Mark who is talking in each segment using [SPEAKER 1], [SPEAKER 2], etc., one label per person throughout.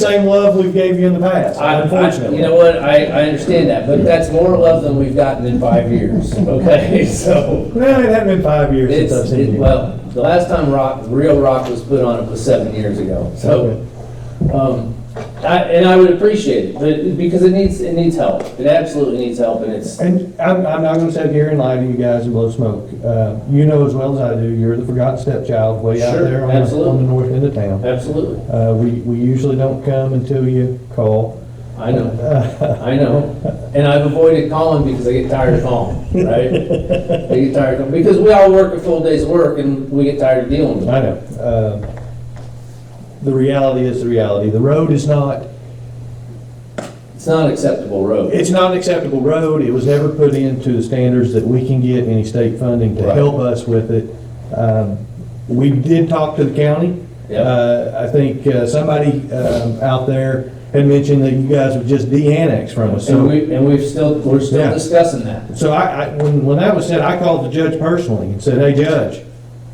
[SPEAKER 1] same love we gave you in the past,
[SPEAKER 2] I, I,
[SPEAKER 1] unfortunately.
[SPEAKER 2] you know what, I, I understand that, but that's more love than we've gotten in five years, okay? So,
[SPEAKER 1] Well, it hasn't been five years since
[SPEAKER 2] it's,
[SPEAKER 1] I've seen
[SPEAKER 2] it-
[SPEAKER 1] you.
[SPEAKER 2] well, the last time rock, real rock was put on it was seven years ago, so. Um, I, and I would appreciate it, but, because it needs, it needs help, it absolutely needs help, and it's,
[SPEAKER 1] And I'm, I'm not gonna sit here and lie to you guys and blow smoke. Uh, you know as well as I do, you're the forgotten stepchild way out
[SPEAKER 2] Sure,
[SPEAKER 1] there on the, on
[SPEAKER 2] absolutely.
[SPEAKER 1] the north end of town.
[SPEAKER 2] absolutely,
[SPEAKER 1] Uh, we, we usually don't come until you call.
[SPEAKER 2] I know. I know, and I've avoided calling because I get tired of calling, right? I get tired of, calling because we all work a full day's work and we get tired of dealing with it.
[SPEAKER 1] I know. Uh, The reality is the reality. The road is not,
[SPEAKER 2] It's not an acceptable road.
[SPEAKER 1] it's not an acceptable road. It was never put into the standards that we can get any state funding to
[SPEAKER 2] Right.
[SPEAKER 1] help us with it. Um, We did talk to the county.
[SPEAKER 2] Yep.
[SPEAKER 1] Uh, I think uh, somebody um, out there had mentioned that you guys would just de-annex from us.
[SPEAKER 2] And
[SPEAKER 1] So,
[SPEAKER 2] we, and we've still, we're
[SPEAKER 1] Yeah.
[SPEAKER 2] still discussing that.
[SPEAKER 1] so I, I- when, when that was said, I called the judge personally and said, hey, Judge,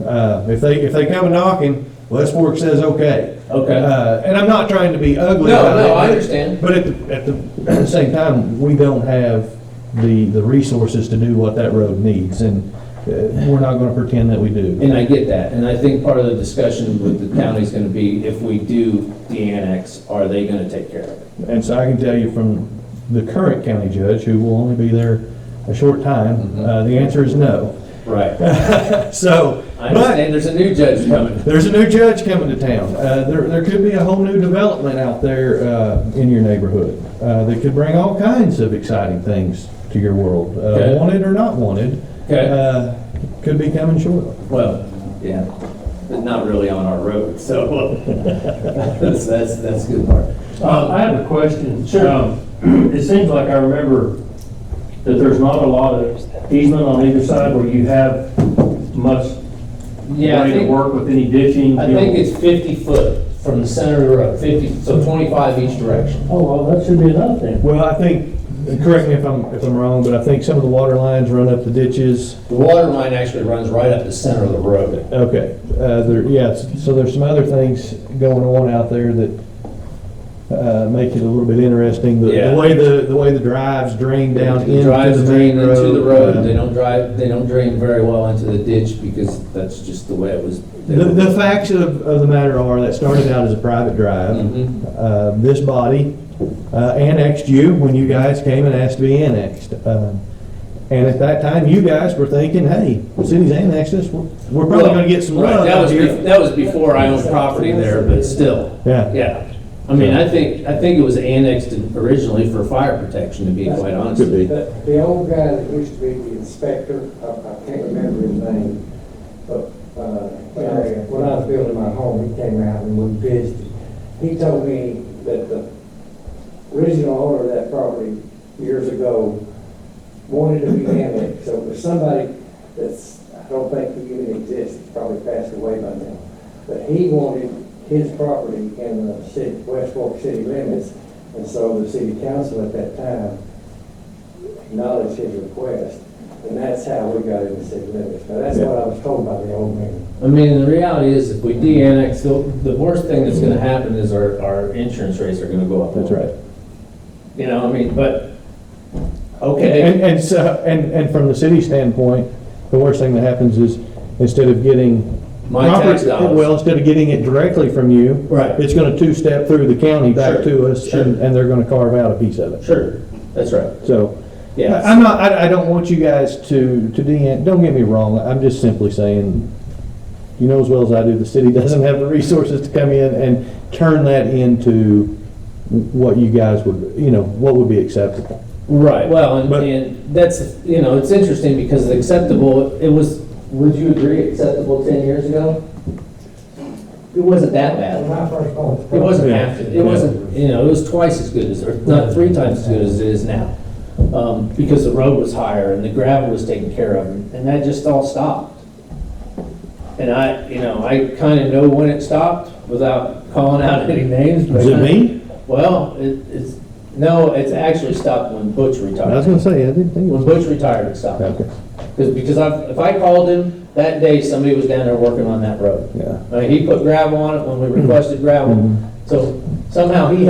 [SPEAKER 1] uh, if they, if they come knocking, Westport says okay.
[SPEAKER 2] Okay.
[SPEAKER 1] Uh, And I'm not trying to be ugly
[SPEAKER 2] No,
[SPEAKER 1] about it.
[SPEAKER 2] no, I
[SPEAKER 1] but-
[SPEAKER 2] understand.
[SPEAKER 1] But at the, at the same time, we don't have the, the resources to do what that road needs, and uh, we're not gonna pretend that we do.
[SPEAKER 2] And I get that, and I think part of the discussion with the county is gonna be, if we do de-annex, are they gonna take care of it?
[SPEAKER 1] And so I can tell you from the current county judge, who will only be there a short
[SPEAKER 2] Mm-hmm.
[SPEAKER 1] time, uh, the answer is no.
[SPEAKER 2] Right.
[SPEAKER 1] So,
[SPEAKER 2] I
[SPEAKER 1] but
[SPEAKER 2] understand, there's a new judge coming.
[SPEAKER 1] There's a new judge coming to town. Uh, there, there could be a whole new development out there, uh, in your neighborhood. Uh, that could bring all kinds of exciting things to your world, uh,
[SPEAKER 2] Okay.
[SPEAKER 1] wanted or not wanted.
[SPEAKER 2] Okay.
[SPEAKER 1] Uh, could be coming shortly.
[SPEAKER 2] Well, yeah, but not really on our road, so that's, that's, that's a good part.
[SPEAKER 3] Uh, I have a question. Um, It seems like I remember that there's not a lot of easement on either side where you have much
[SPEAKER 2] Yeah, I
[SPEAKER 3] way to
[SPEAKER 2] think,
[SPEAKER 3] work with any ditching.
[SPEAKER 2] I think it's fifty foot from the center of the road, fifty, so twenty-five each direction.
[SPEAKER 3] Oh, well, that should be enough then.
[SPEAKER 1] Well, I think, correct me if I'm, if I'm wrong, but I think some of the water lines run up the ditches.
[SPEAKER 2] The water line actually runs right up the center of the road.
[SPEAKER 1] Okay, uh, there, yes, so there's some other things going on out there that, uh, make it a little bit interesting. The- The
[SPEAKER 2] Yeah.
[SPEAKER 1] way the, the way the drives drain down into the main road.
[SPEAKER 2] Drives drain into the
[SPEAKER 1] uh,
[SPEAKER 2] road, they don't drive, they don't drain very well into the ditch because that's just the way it was.
[SPEAKER 1] The, the facts of, of the matter are, that started out as a private drive.
[SPEAKER 2] Mhm.
[SPEAKER 1] Uh, This body uh, annexed you when you guys came and asked to be annexed. Um, And at that time, you guys were thinking, hey, the city's annexed us, we're we're probably gonna get some
[SPEAKER 2] Right,
[SPEAKER 1] love
[SPEAKER 2] that
[SPEAKER 1] out
[SPEAKER 2] was bef-
[SPEAKER 1] here.
[SPEAKER 2] That was before I owned property there, but still.
[SPEAKER 1] Yeah.
[SPEAKER 2] Yeah. I mean, I think, I think it was annexed originally for fire protection, to be quite honest.
[SPEAKER 1] Could be.
[SPEAKER 4] The, the old guy that used to be the inspector, I, I can't remember his name, but, uh, when I, when I was building my home, he came out and we visited. He told me that the original owner of that property years ago wanted to be annexed, so there's somebody that's, I don't think he even exists, he's probably passed away by now. But he wanted his property in the city, West Fork city limits, and so the city council at that time acknowledged his request, and that's how we got into city limits. Now, that's what I was told by the old man.
[SPEAKER 2] I mean, the reality is, if we de-annex, the the worst thing that's gonna happen is our, our insurance rates are gonna go up.
[SPEAKER 1] That's right.
[SPEAKER 2] You know, I mean, but,
[SPEAKER 1] And,
[SPEAKER 2] okay,
[SPEAKER 1] and so, and, and from the city standpoint, the worst thing that happens is, instead of getting.
[SPEAKER 2] My tax
[SPEAKER 1] property-
[SPEAKER 2] dollars.
[SPEAKER 1] Well, instead of getting it directly from you.
[SPEAKER 2] Right.
[SPEAKER 1] It's gonna two-step through the county back
[SPEAKER 2] Sure,
[SPEAKER 1] to us,
[SPEAKER 2] sure.
[SPEAKER 1] and, and they're gonna carve out a piece of it.
[SPEAKER 2] sure, that's right,
[SPEAKER 1] So,
[SPEAKER 2] yeah.
[SPEAKER 1] I- I'm not, I, I don't want you guys to, to de, don't get me wrong, I'm just simply saying, you know as well as I do, the city doesn't have the resources to come in and turn that into what you guys would, you know, what would be acceptable.
[SPEAKER 2] Right, well, and,
[SPEAKER 1] But-
[SPEAKER 2] and that's, you know, it's interesting because the acceptable, it was, would you agree, acceptable ten years ago? It wasn't that bad.
[SPEAKER 4] When I first bought this
[SPEAKER 2] It wasn't
[SPEAKER 1] Yeah.
[SPEAKER 2] half, it wasn't, you know, it was twice as good as, or not three times as good as it is now. Um, because the road was higher and the gravel was taken care of and that just all stopped. And I, you know, I kinda know when it stopped without calling out any names, but.
[SPEAKER 1] Is it me?
[SPEAKER 2] Well, it, it's, no, it's actually stopped when Butch
[SPEAKER 1] I
[SPEAKER 2] retired.
[SPEAKER 1] was gonna say, I didn't think it was.
[SPEAKER 2] When Butch retired, it stopped.
[SPEAKER 1] Okay,
[SPEAKER 2] Because, because I, if I called him that day, somebody was down there working on that road.
[SPEAKER 1] yeah.
[SPEAKER 2] I mean, he put gravel on it when we requested gravel, So somehow he